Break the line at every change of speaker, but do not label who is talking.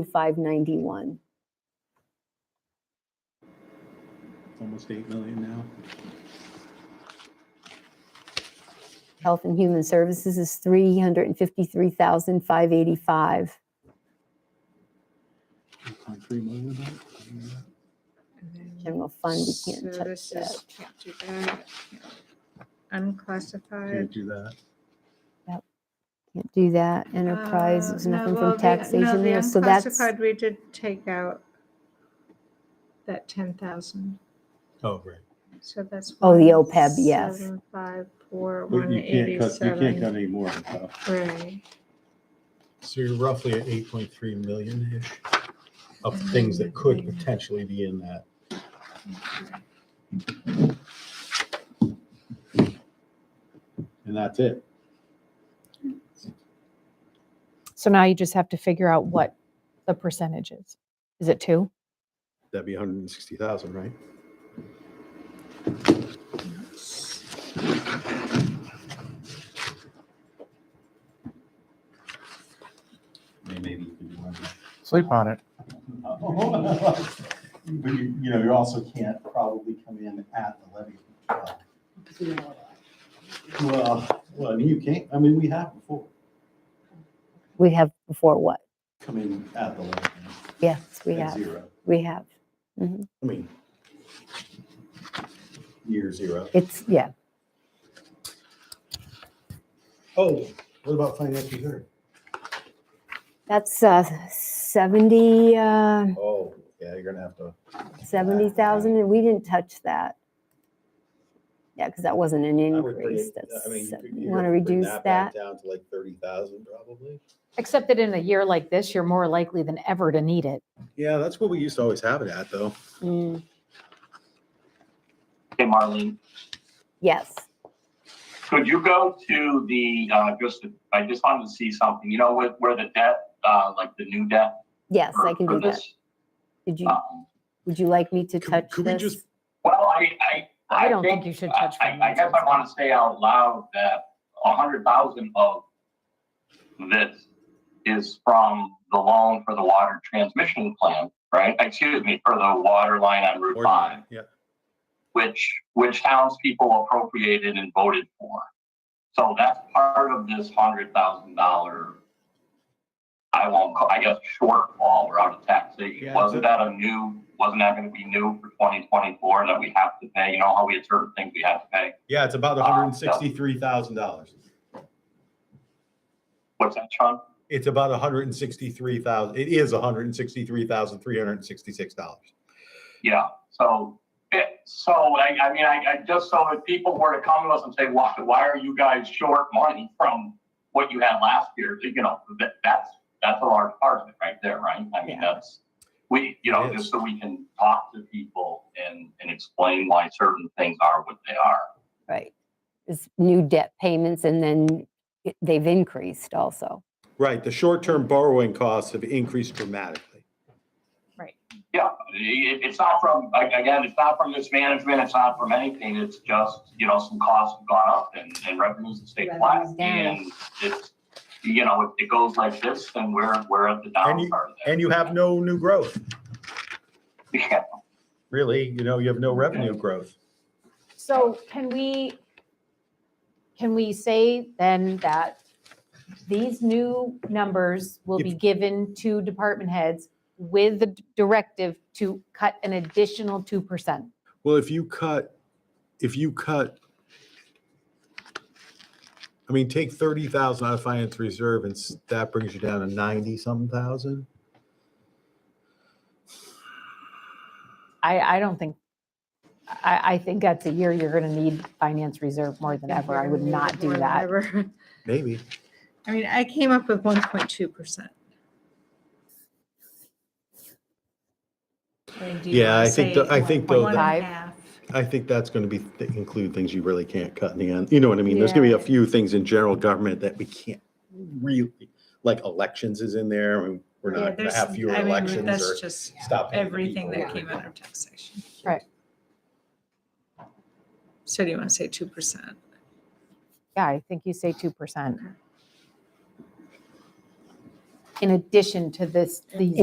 to 591.
almost eight million now.
Health and Human Services is 353,585.
Eight point three million, about, something like that.
General fund, we can't touch that.
Services, can't do that. Unclassified.
can't do that.
Can't do that. Enterprise,
Uh,
there's
no,
nothing
well,
from
the- no,
taxation
the
there, so that's,
unclassified, We did take out that ten thousand,
Oh, right.
so that's.
Oh, the OPEB, yes.
Five, four,
But
one
you can't cut, you can't cut
eighty-seven.
any more than that.
Right,
So you're roughly at eight point three million-ish of things that could potentially be in that.
and that's it.
So now you just have to figure out what the percentage is. Is it two?
That'd be hundred and sixty thousand, right?
Maybe you can do one.
Sleep on it.
But you, you know, you also can't probably come in at the levy. uh, Well, well, you can't, I mean, we have before,
we have before what?
come in at the levy.
Yes, we
at
have,
Zero,
we have. Mm-hmm.
I mean, year zero.
It's, yeah,
Oh, what about finance reserve?
that's uh, 70, uh,
Oh, yeah, you're gonna have to.
70,000, and we didn't touch that. Yeah, because that wasn't an
I would bring
increase.
it- I mean,
That's,
you could-
you
you'd
want to
have bring
reduce
back
that?
Down to like thirty thousand probably.
Except that in a year like this, you're more likely than ever to need it.
Yeah, that's what we used to always have it at though.
Mm,
Hey, Marlene,
Yes.
could you go to the, uh, just, I just wanted to see something, you know, with, where the debt, uh, like the new debt?
Yes, I
for-
can
for
do that.
this,
Did you,
um,
would you like me to
Could-
touch
could we just
this?
Well, I, I.
I don't think you should touch
I, I- I guess I
finances.
want to say out loud that a hundred thousand of this is from the loan for the water transmission plan, right? Excuse me, for the water line on Route Five.
Yeah,
which, which townspeople appropriated and voted for. So that's part of this hundred thousand dollar, I won't, call I guess shortfall or out of taxation.
Yeah,
Wasn't
so-
that a new, wasn't that gonna be new for twenty twenty-four that we have to pay? You know how we had certain things we had to pay?
yeah, it's about
Ah,
hundred and sixty-three thousand dollars.
What's that, Sean?
It's about hundred and sixty-three thousand, it is hundred and sixty-three thousand, three hundred and sixty-six dollars.
Yeah, so, it, so I, I mean, I, I just, so if people were to come to us and say, why, why are you guys short money from what you had last year? You know, that, that's, that's a large part of it right there, right? I mean, that's, we, you know,
It is.
just so we can talk to people and, and explain why certain things are what they are.
Right. It's new debt payments and then it- they've increased also.
Right, the short-term borrowing costs have increased dramatically.
Yeah, it, it's not from, like, again, it's not from mismanagement, it's not from anything, it's just, you know, some costs have gone up and, and revenues have stayed flat.
Revenues down.
And it's, you know, if it goes like this, then we're, we're at the
And
down
you-
part of that.
And you have no new growth,
Yeah,
really, you know, you have no revenue growth.
So can we, can we say then that these new numbers will be given to department heads with the directive to cut an additional 2%?
Well, if you cut, if you cut, I mean, take thirty thousand out of finance reserve and s- that brings you down to ninety-some thousand?
I, I don't think, I, I think that's a year you're going to need finance reserve more than ever. I would not do
Or
that.
whatever.
Maybe.
I mean, I came up with one point two percent.
Yeah, I think tho- I think though
One and
that-
a half.
I think that's going to be, th- include things you really can't cut in the end. You know what I mean? There's going to be
Yeah.
a few things in general government that we can't really, like elections is in there. and We're
Yeah,
not going
there's-
to have fewer
I mean,
elections or
That's just
stop. paying the
everything
people.
that came out of taxation.
Right.
So do you want to say two percent?
Yeah, I think you say 2%. In addition to this, these